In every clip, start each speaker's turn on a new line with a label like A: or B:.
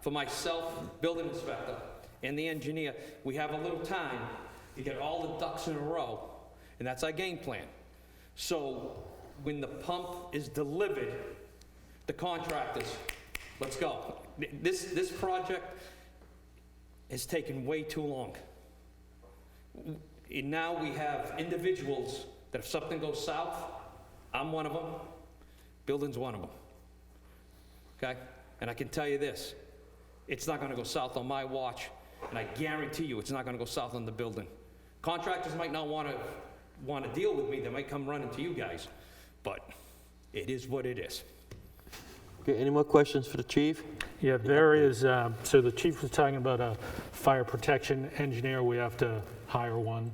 A: for myself, building inspector, and the engineer, we have a little time to get all the ducks in a row, and that's our game plan. So when the pump is delivered, the contractors, let's go. Th- This, this project has taken way too long. And now we have individuals that if something goes south, I'm one of them, building's one of them. Okay? And I can tell you this, it's not gonna go south on my watch, and I guarantee you, it's not gonna go south on the building. Contractors might not wanna, wanna deal with me, they might come running to you guys, but it is what it is.
B: Okay, any more questions for the chief?
C: Yeah, there is, um, so the chief was talking about a fire protection engineer, we have to hire one.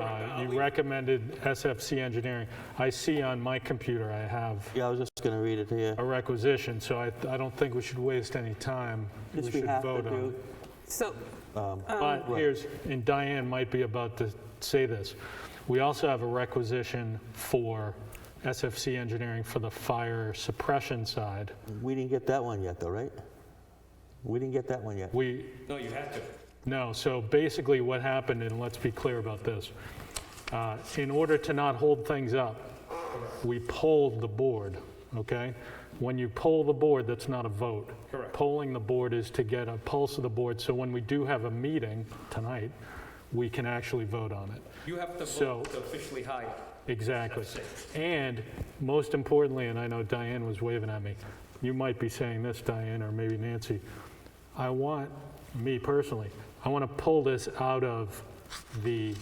C: Uh, You recommended SFC engineering. I see on my computer, I have
B: Yeah, I was just gonna read it here.
C: a requisition, so I I don't think we should waste any time.
B: This we
C: should
B: have to
C: vote on
B: do. Um,
C: it.
D: So,
C: But here's, and Diane might be about to say this, we also have a requisition for SFC engineering for the fire suppression side.
B: We didn't get that one yet, though, right? We didn't get that one yet.
C: We,
A: No, you have to.
C: No, so basically what happened, and let's be clear about this, uh, in order to not hold things up, we polled the board, okay? When you poll the board, that's not a vote.
A: Correct.
C: Polling the board is to get a pulse of the board, so when we do have a meeting tonight, we can actually vote on it.
A: You have to
C: So-
A: vote to officially hire.
C: Exactly. And most importantly, and I know Diane was waving at me, you might be saying this, Diane, or maybe Nancy, I want, me personally, I want to pull this out of the,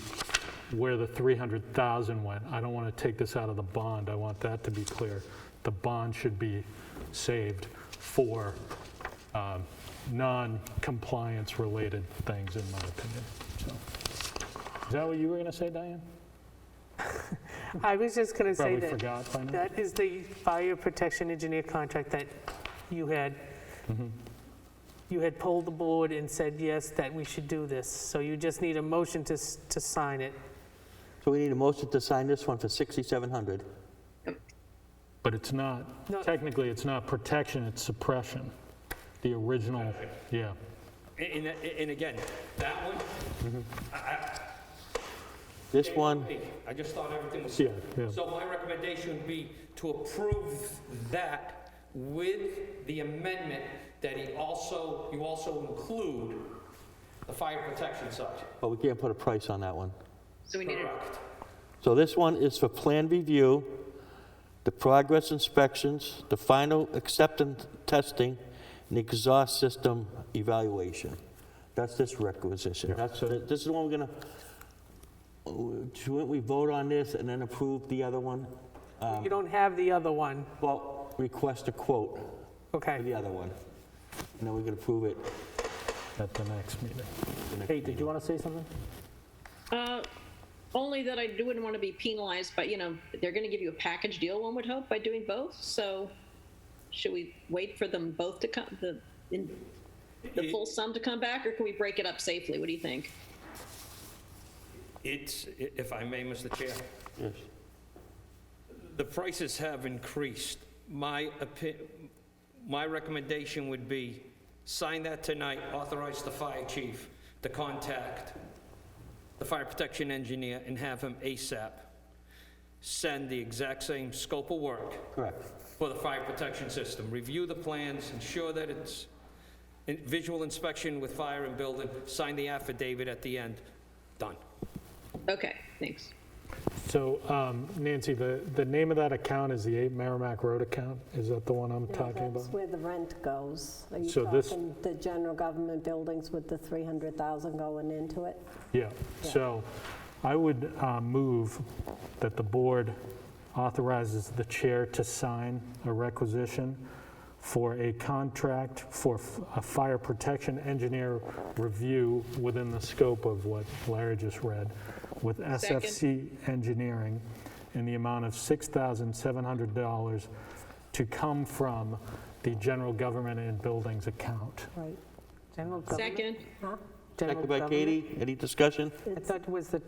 C: where the 300,000 went. I don't want to take this out of the bond, I want that to be clear. The bond should be saved for um, non-compliance related things, in my opinion. So, Is that what you were going to say, Diane?
D: I was just going to say
C: Probably
D: that,
C: forgot by now.
D: that is the fire protection engineer contract that you had,
C: Mm-hmm.
D: you had polled the board and said, yes, that we should do this. So you just need a motion to, s- to sign it.
B: So we need a motion to sign this one for 6,700.
C: But it's not,
D: No.
C: technically, it's not protection, it's suppression. The original, yeah.
A: And, and- and again, that one,
B: This one,
A: Hey, I just thought everything was.
C: Yeah, yeah.
A: So my recommendation would be to approve that with the amendment that he also, you also include the fire protection side.
B: but we can't put a price on that one.
E: So we need a
A: Correct.
B: So this one is for plan review, the progress inspections, the final acceptance testing, and exhaust system evaluation. That's this requisition. That's, this is the one we're gonna, uh, shouldn't we vote on this and then approve the other one?
C: Um,
D: You don't have the other one,
B: Well, request a quote for the
D: okay?
B: other one. And then we can approve it.
C: At the next meeting.
B: the next
C: Kate, did you want to say something?
E: Uh, Only that I wouldn't want to be penalized, but you know, they're going to give you a package deal, one would hope, by doing both. So should we wait for them both to come, the, in, the full sum to come back, or can we break it up safely? What do you think?
A: It's, i- if I may, Mr. Chair,
B: Yes.
A: the prices have increased. My opi, my recommendation would be sign that tonight, authorize the fire chief to contact the fire protection engineer and have him ASAP send the exact same scope of work
B: Correct.
A: for the fire protection system. Review the plans, ensure that it's in- visual inspection with fire and building, sign the affidavit at the end, done.
E: Okay, thanks.
C: So um, Nancy, the, the name of that account is the 8 Merrimack Road account? Is that the one I'm
F: No,
C: talking about?
F: That's where the rent goes. Are you
C: So this-
F: talking the general government buildings with the 300,000 going into it?
C: Yeah, so I would uh, move that the board authorizes the chair to sign a requisition for a contract for f- a fire protection engineer review within the scope of what Larry just read with SFC Engineering in the amount of $6,700 to come from the general government and buildings account.
F: Right.
D: General government?
E: Second,
D: general
B: Second by
D: government?
B: Katie. Any discussion?
D: I thought was the,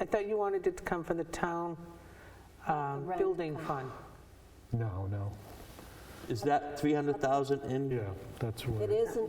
D: I thought you wanted it to come from the town um,
F: rent
D: building fund.
C: No, no,
B: Is that 300,000 in?
C: yeah, that's where.
F: It isn't